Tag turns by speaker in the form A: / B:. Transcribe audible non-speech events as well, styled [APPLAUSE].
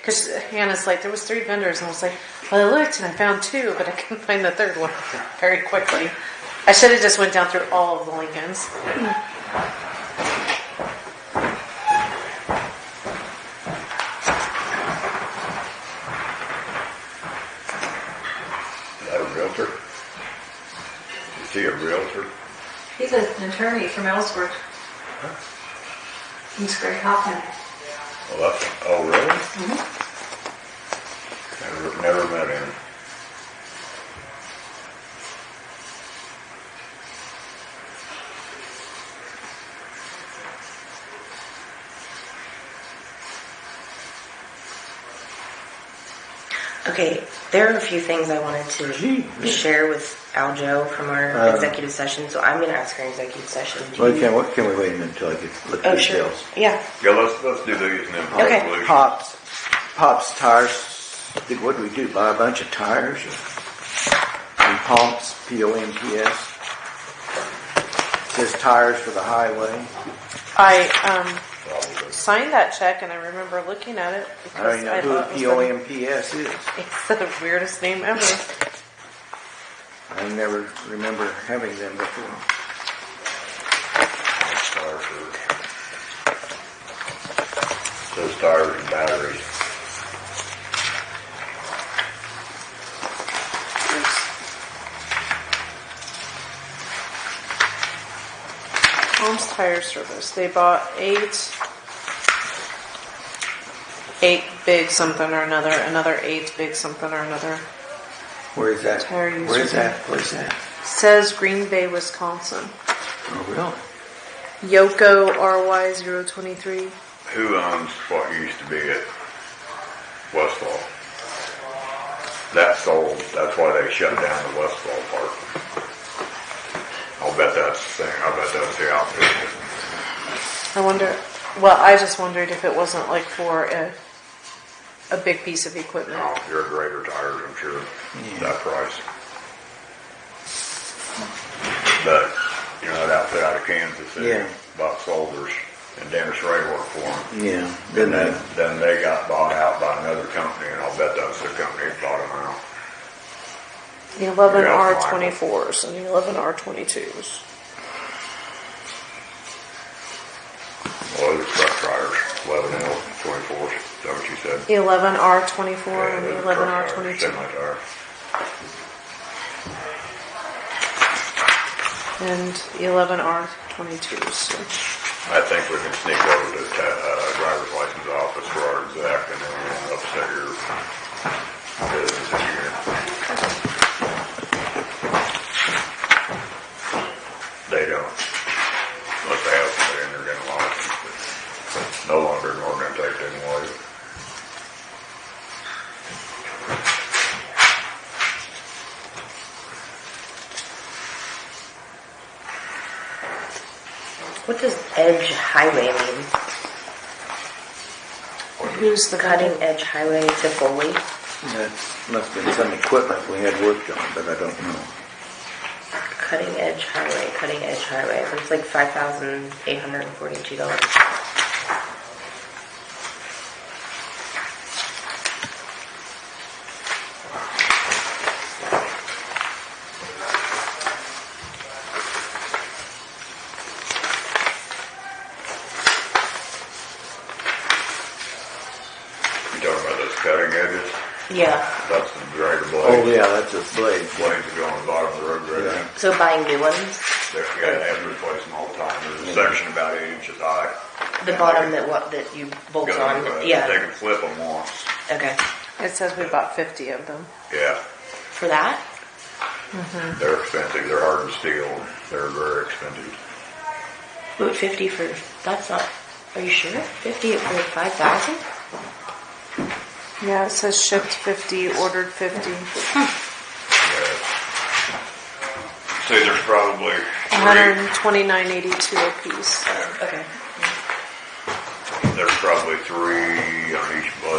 A: Because uh, Hannah's like, there was three vendors, and I was like, well, I looked and I found two, but I couldn't find the third one [LAUGHS] very quickly. I should have just went down through all of the Lincolns.
B: That a realtor? Is he a realtor?
C: He's an attorney from Ellsworth. He's Greg Hoffman.
B: Well, that's, oh, really? Never, never met him.
D: Okay, there are a few things I wanted to share with Aljo from our
E: Uh,
D: executive session, so I'm going to ask her in executive session. Do
E: Well,
D: you-
E: can, what, can we wait a minute until I get, look at
D: Oh,
E: the
D: sure.
E: details?
D: Yeah.
B: Yeah, let's, let's do these and then
D: Okay.
B: resolution.
E: Pops, pops tires, think, what do we do, buy a bunch of tires? or- And pumps, P-O-M-P-S. Says tires for the highway.
A: I um,
B: Probably.
A: signed that check, and I remember looking at it
E: I
A: because
E: don't even know
A: thought
E: Oh, who
A: it was
E: P-O-M-P-S is.
A: the, it's [LAUGHS] the weirdest name ever.
E: I never remember having them before.
B: That's tire for. Those tires and batteries.
A: Holmes Tire Service. They bought eight, eight big something or another, another eight big something or another.
E: Where is that?
A: Tire user.
E: Where is that? Where is that?
A: Says Green Bay, Wisconsin.
E: Oh, really?
A: Yoko RY023.
B: Who owns what used to be at Westfall? That sold, that's why they shut down the Westfall Park. I'll bet that's the thing, I bet that's the outfit.
A: I wonder. Well, I just wondered if it wasn't like for a a big piece of equipment.
B: Oh, you're a greater tires, I'm sure, that price. But, you know, that outfit out of Kansas,
E: Yeah.
B: they bought soldiers, and Dennis Ray worked for them.
E: Yeah,
B: And then,
E: then that,
B: then they got bought out by another company, and I'll bet that was the company that bought them out.
A: The 11
B: Yeah, that's fine.
A: R24s and the 11 R22s.
B: Well, it was truck tires, eleven L, twenty-fours, is that what you said?
A: The 11 R24
B: Yeah,
A: and
B: those
A: the
B: are
A: 11
B: truck tires,
A: R22.
B: Semi tire.
A: And the 11 R22s.
B: I think we can sneak over to, ta- uh, driver's license office for our exec, and then we'll upset your business here. They don't, unless they have, it in their gun license, but no longer an ordinance act anyway.
D: What does edge highway mean?
A: Who's the
D: Cutting
A: cutting?
D: edge highway to Foley?
E: that must have been some equipment we had worked on, but I don't know.
D: Cutting edge highway, cutting edge highway. It's like five thousand eight hundred and forty-two dollars.
B: You talking about those cutting edges?
D: Yeah.
B: That's the greater
E: Oh,
B: blade.
E: yeah, that's a blade.
B: Blades that go on the bottom of the road right now.
D: So buying new ones.
B: They're, you gotta have to replace them all the time. There's a section about eight inches high.
D: The bottom that what that you bolt
B: Got them, uh,
D: on.
B: They
D: Yeah.
B: can flip them once.
D: Okay.
A: It says we bought 50 of them.
B: Yeah,
D: For that.
B: they're expensive. They're hardened steel. They're very expensive.
D: But fifty for that's not. Are you sure? Fifty for five thousand?
A: Yeah, it says shipped 50, ordered 50.
B: Yeah. See, there's probably
D: Um,
B: three,
A: 129.82 a piece.
D: Okay.
B: there's probably three on each blade.